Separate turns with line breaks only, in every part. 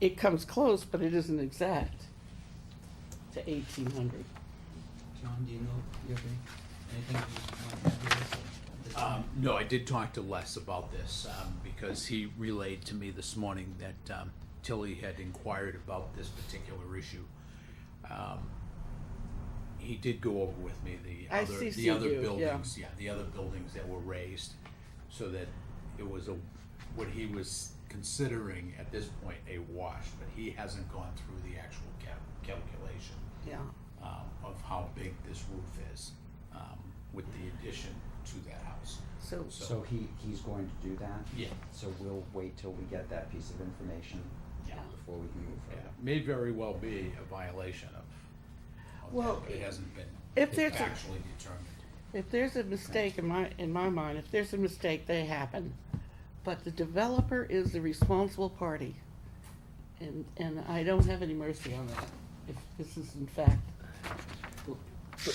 it comes close, but it isn't exact to eighteen hundred.
John, do you know, you have any, anything you might have this at this time?
Um, no, I did talk to Les about this, um, because he relayed to me this morning that, um, Tilly had inquired about this particular issue. Um, He did go over with me the
I
other,
CC'd
the other
you, yeah.
buildings, yeah, the other buildings that were raised, so that it was a, what he was considering at this point a wash, but he hasn't gone through the actual cal- calculation
Yeah,
um, of how big this roof is, um, with the addition to that house.
so,
So,
So he, he's going to do that?
yeah,
So we'll wait till we get that piece of information
yeah,
before we can move
yeah,
further.
may very well be a violation of, of that,
Well,
but it hasn't been
if there's a-
actually determined.
if there's a mistake in my, in my mind, if there's a mistake, they happen. But the developer is the responsible party. And, and I don't have any mercy on that, if this is in fact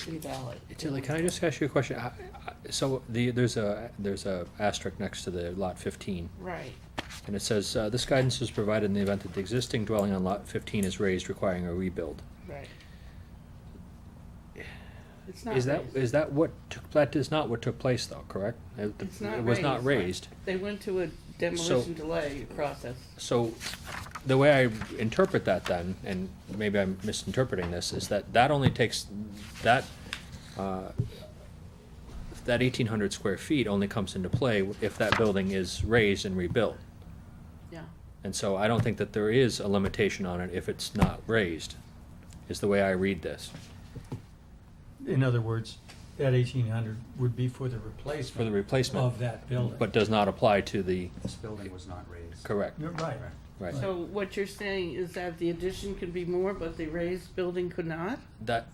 invalid.
Tilly, can I just ask you a question? I- I- So the, there's a, there's a asterisk next to the lot fifteen,
Right,
and it says, uh, this guidance is provided in the event that the existing dwelling on lot fifteen is raised requiring a rebuild.
right. It's not
Is that,
raised.
is that what, took- that is not what took place though, correct? It-
It's not
It was not
raised.
raised.
They went to a demolition delay process.
So the way I interpret that then, and maybe I'm misinterpreting this, is that that only takes, that, uh, that eighteen hundred square feet only comes into play if that building is raised and rebuilt.
Yeah,
And so I don't think that there is a limitation on it if it's not raised, is the way I read this.
In other words, that eighteen hundred would be for the
For the
replacement
replacement.
of that building.
But does not apply to the,
This building was not raised.
correct,
You're Right.
right.
so what you're saying is that the addition could be more, but the raised building could not?
That,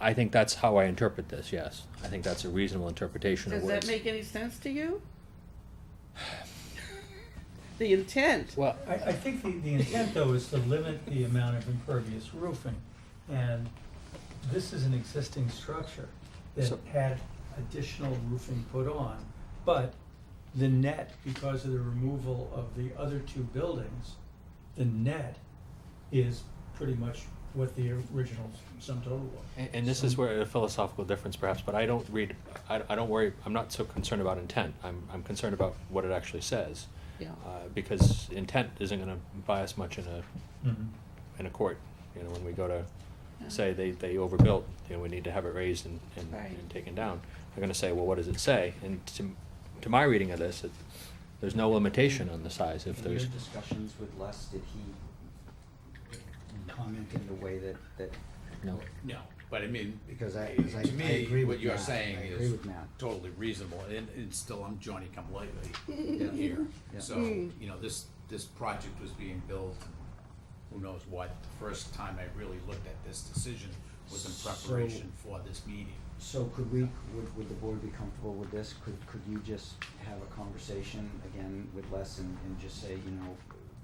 I think that's how I interpret this, yes. I think that's a reasonable interpretation of
Does
words.
that make any sense to you? The intent,
Well,
I, I think the, the intent though is to limit the amount of impervious roofing. And this is an existing structure that
So-
had additional roofing put on. But the net, because of the removal of the other two buildings, the net is pretty much what the original sum total was.
And, and this is where a philosophical difference perhaps, but I don't read, I, I don't worry, I'm not so concerned about intent. I'm, I'm concerned about what it actually says.
yeah,
Uh, because intent isn't gonna buy us much in a,
Mhm.
in a court. You know, when we go to say they, they overbuilt, you know, we need to have it raised and, and,
Right.
and taken down. They're gonna say, well, what does it say? And to, to my reading of this, it, there's no limitation on the size if
In your
there's,
discussions with Les, did he comment in the way that, that,
no.
No, but I mean,
Because I- because I-
to
I agree
me,
with
what you're
Matt.
saying
I agree
is
with Matt.
totally reasonable, and, and still, I'm Johnny come lately here.
Yeah.
So, you know, this, this project was being built, who knows what, the first time I really looked at this decision was in
So-
preparation for this meeting.
so could we, would, would the board be comfortable with this? Could, could you just have a conversation again with Les and, and just say, you know,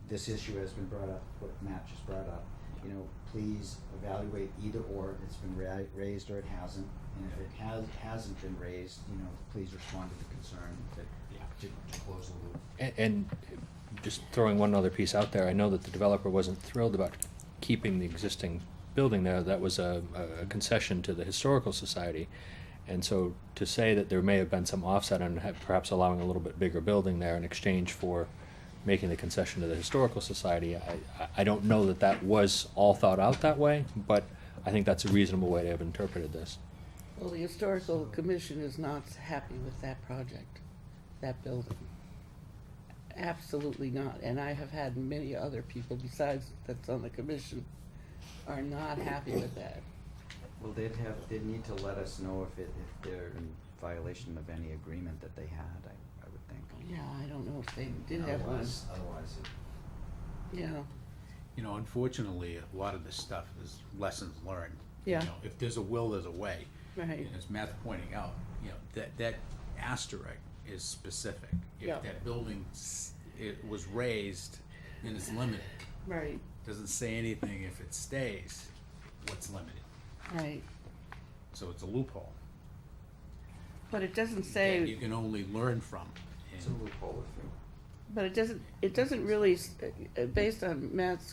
this issue has been brought up, what Matt just brought up. You know, please evaluate either or, it's been ra- raised or it hasn't. And if it has, hasn't been raised, you know, please respond to the concern that,
Yeah.
to, to close the loop.
And, and just throwing one other piece out there, I know that the developer wasn't thrilled about keeping the existing building there. That was a, a concession to the Historical Society. And so to say that there may have been some offset on ha- perhaps allowing a little bit bigger building there in exchange for making the concession to the Historical Society, I, I- I don't know that that was all thought out that way, but I think that's a reasonable way to have interpreted this.
well, the historical commission is not happy with that project, that building. Absolutely not, and I have had many other people besides that's on the commission are not happy with that.
Well, they'd have, they'd need to let us know if it, if they're in violation of any agreement that they had, I, I would think.
Yeah, I don't know if they did have one,
Otherwise, otherwise it.
yeah.
You know, unfortunately, a lot of this stuff is lessons learned. You
Yeah.
know, If there's a will, there's a way.
Right.
And as Matt's pointing out, you know, that, that asterisk is specific.
Yeah.
If that building, s- it was raised, then it's limited.
Right,
Doesn't say anything if it stays, what's limited.
right.
So it's a loophole.
But it doesn't
that You
say,
can only learn from.
It's a
And
loophole if you,
But it doesn't, it doesn't really, s- uh, uh, based on Matt's